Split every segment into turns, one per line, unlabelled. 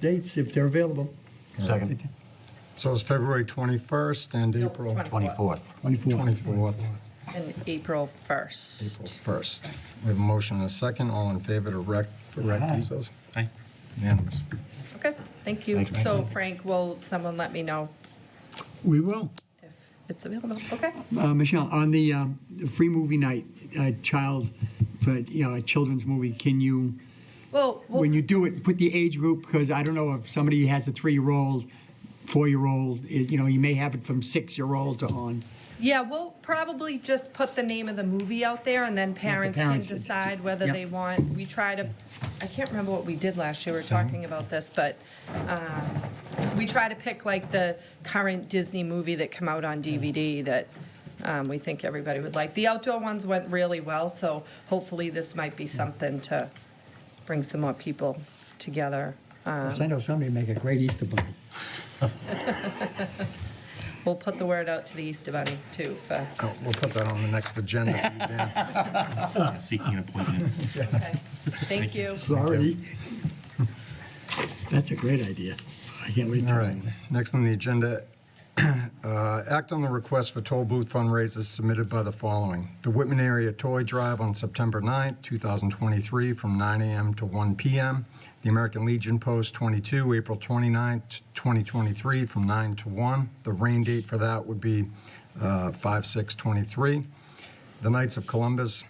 dates if they're available.
Second,
So it's February 21st and
No,
April
24th.
24th.
24th,
And April
April
1st.
1st. We have a motion and a second. All in favor to rec, for rec
Aye.
recess? Aye. Unanimous.
Okay, thank you.
Thank you.
So Frank, will someone let me know
We will.
if it's available? Okay.
Uh, Michelle, on the um, the free movie night, uh, child, for, you know, a children's movie, can you,
Well, we'll-
when you do it, put the age group, because I don't know if somebody has a three-year-old, four-year-old, eh, you know, you may have it from six-year-old to on.
yeah, we'll probably just put the name of the movie out there and then parents can
parents-
decide whether
Yep.
they want, we try to, I can't remember what we did last year, we were talking about this, but um, we try to pick like the current Disney movie that come out on DVD that um, we think everybody would like. The outdoor ones went really well, so hopefully this might be something to bring some more people together. Um,
I know somebody make a great Easter bunny.
We'll put the word out to the Easter Bunny too for,
Oh, We'll put that on the next agenda. for you, Dan.
seeking an appointment.
okay, thank you.
Sorry. That's a great idea. I can't wait. to-
All right, next on the agenda, uh, act on the request for toll booth fundraisers submitted by the following. The Whitman Area Toy Drive on September 9th, 2023, from 9 a.m. to 1 p.m. The American Legion Post 22, April 29th, 2023, from 9 to 1. The rain date for that would be uh, 5/6/23. The Knights of Columbus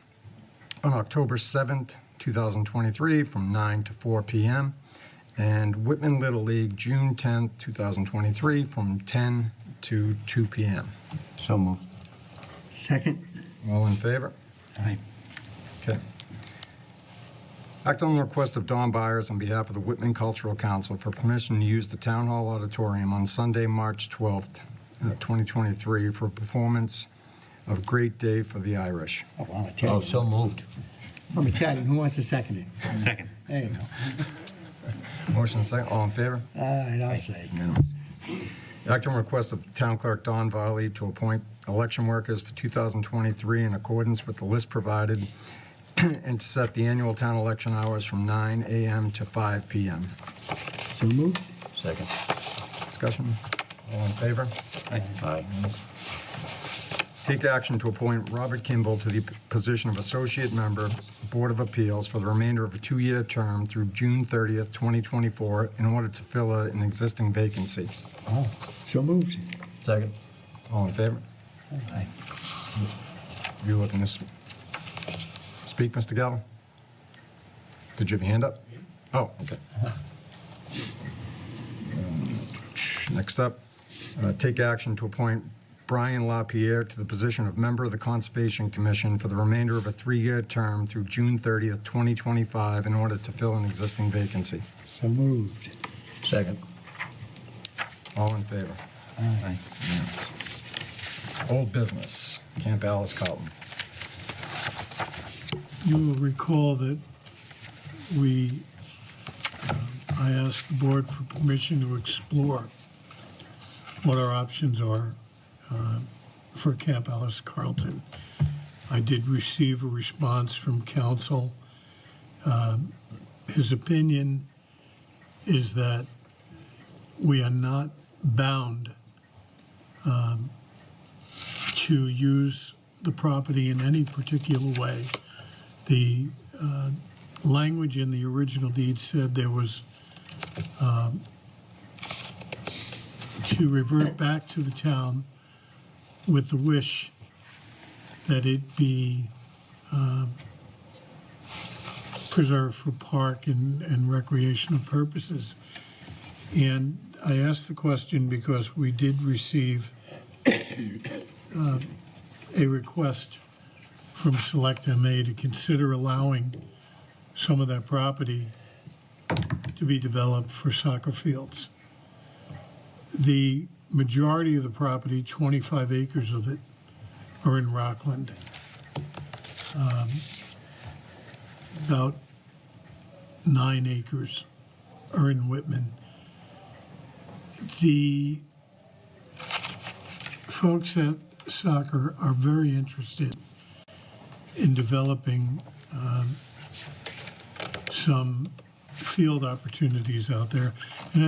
on October 7th, 2023, from 9 to 4 p.m., and Whitman Little League, June 10th, 2023, from 10 to 2 p.m.
So moved.
Second,
All in favor? Okay. Act on the request of Don Byers on behalf of the Whitman Cultural Council for permission to use the Town Hall Auditorium on Sunday, March 12th, uh, 2023, for a performance of Great Day for the Irish.
oh, wow, I'm
Oh,
Italian.
so moved.
I'm Italian, who wants to second it?
Second.
There you go.
Motion second, all in favor?
All right, I'll say.
Unanimous. Act on request of Town Clerk Don Varley to appoint election workers for 2023 in accordance with the list provided and to set the annual town election hours from 9 a.m. to 5 p.m.
So moved?
Second.
Discussion? All in favor?
Aye.
Take action to appoint Robert Kimball to the position of Associate Member, Board of Appeals, for the remainder of a two-year term through June 30th, 2024, in order to fill a- an existing vacancy.
Oh, so moved.
Second.
All in favor?
Aye.
You looking to s- speak, Mr. Gallo? Did you have your hand up? Oh, okay. Um, Next up, uh, take action to appoint Brian LaPierre to the position of member of the Conservation Commission for the remainder of a three-year term through June 30th, 2025, in order to fill an existing vacancy.
So moved.
Second.
All in favor?
Aye.
Old business, Camp Alice Carlton.
You will recall that we, um, I asked the board for permission to explore what our options are uh, for Camp Alice Carlton. I did receive a response from council. Um, His opinion is that we are not bound um, to use the property in any particular way the uh, language in the original deed said there was um, to revert back to the town with the wish that it be um, preserved for park and and recreational purposes. And I asked the question because we did receive uh, a request from Select MA to consider allowing some of that property to be developed for soccer fields. The majority of the property, 25 acres of it, are in Rockland. Um, About nine acres are in Whitman. The folks at soccer are very interested in developing um, some field opportunities out there. And